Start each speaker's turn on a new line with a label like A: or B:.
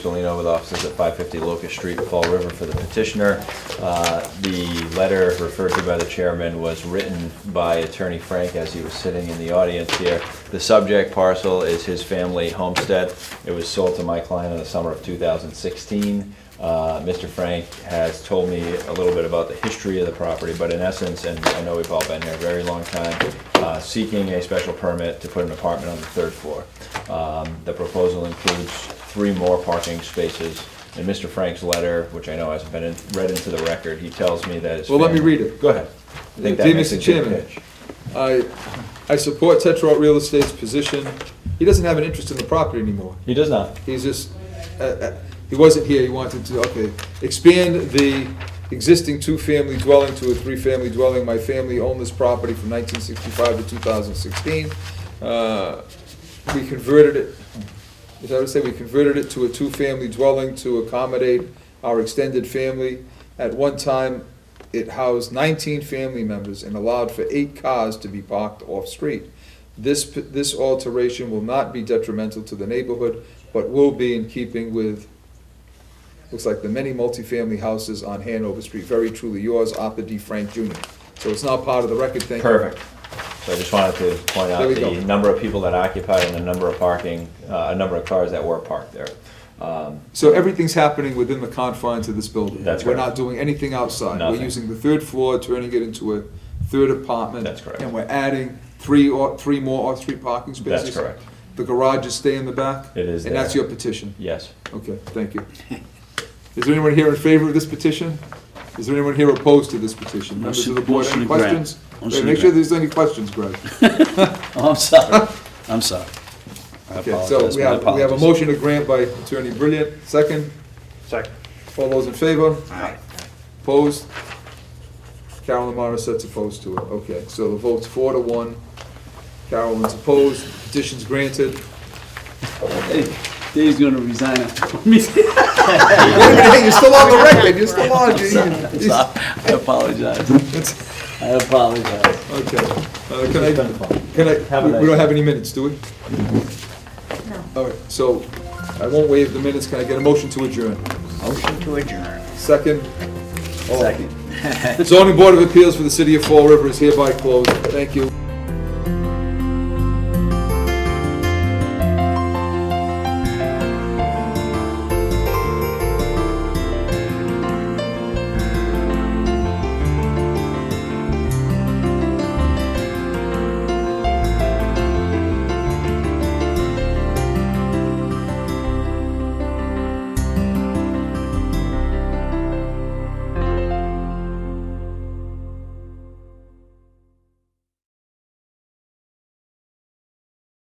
A: Delino with offices at 550 Locust Street, Fall River for the petitioner. Uh, The letter referred to by the chairman was written by Attorney Frank as he was sitting in the audience here. The subject parcel is his family homestead. It was sold to my client in the summer of 2016. Uh, Mr. Frank has told me a little bit about the history of the property, but in essence, and I know we've all been here a very long time, uh, seeking a special permit to put an apartment on the third floor. Um, The proposal includes three more parking spaces. In Mr. Frank's letter, which I know hasn't been in- read into the record, he tells me that it's.
B: Well, let me read it.
A: Go ahead. I think that
B: Dear
A: makes a
B: Mr.
A: good
B: Chairman.
A: pitch.
B: I, I support Tetra Real Estate's position. He doesn't have an interest in the property anymore.
A: He does not.
B: He's just, uh, uh, he wasn't here, he wanted to, okay, expand the existing two-family dwelling to a three-family dwelling. My family owned this property from 1965 to 2016. Uh, We converted it, as I would say, we converted it to a two-family dwelling to accommodate our extended family. At one time, it housed 19 family members and allowed for eight cars to be parked off-street. This, p- this alteration will not be detrimental to the neighborhood, but will be in keeping with, looks like the many multifamily houses on Hanover Street. Very truly yours, Arthur D. Frank Jr. So it's now part of the record, thank you.
A: Perfect. So I just wanted to point out
B: There we go.
A: the number of people that occupied and the number of parking, uh, a number of cars that were parked there. Um,
B: So everything's happening within the confines of this building.
A: That's
B: We're
A: correct.
B: not doing anything outside.
A: Nothing.
B: We're using the third floor, turning it into a third apartment.
A: That's correct.
B: And we're adding three or, three more off-street parking
A: That's
B: spaces.
A: correct.
B: The garages stay in the back?
A: It is
B: And that's
A: there.
B: your petition?
A: Yes.
B: Okay, thank you. Is there anyone here in favor of this petition? Is there anyone here opposed to this petition? Members of the board,
C: Motion-
B: any
C: motion to grant.
B: questions?
C: Motion
B: Wait,
C: to
B: Make sure
C: grant.
B: there's any questions, Greg.
C: Oh, I'm sorry. I'm sorry. I
B: Okay, so
C: apologize.
B: we
C: My
B: have, we have a
C: apologies.
B: motion to grant by Attorney Brilliant, second.
D: Second.
B: All those in favor?
D: Aye.
B: Opposed? Carolyn Morris sets opposed to it. Okay, so the vote's four to one. Carolyn's opposed, petition's granted.
C: Hey, Dave's gonna resign after me.
B: Wait a minute, hey, you're still on the record, you're still on. you- you-
C: I apologize.
B: it's-
C: I apologize.
B: Okay, uh, can I, can I,
A: Have a
B: we- we don't
A: nice-
B: have any minutes, do we?
E: No.
B: All right, so I won't waive the minutes, can I get a motion to adjourn?
D: Motion to adjourn.
B: Second? All right.
C: Second.
B: The zoning board of appeals for the city of Fall River is hereby closed, thank you.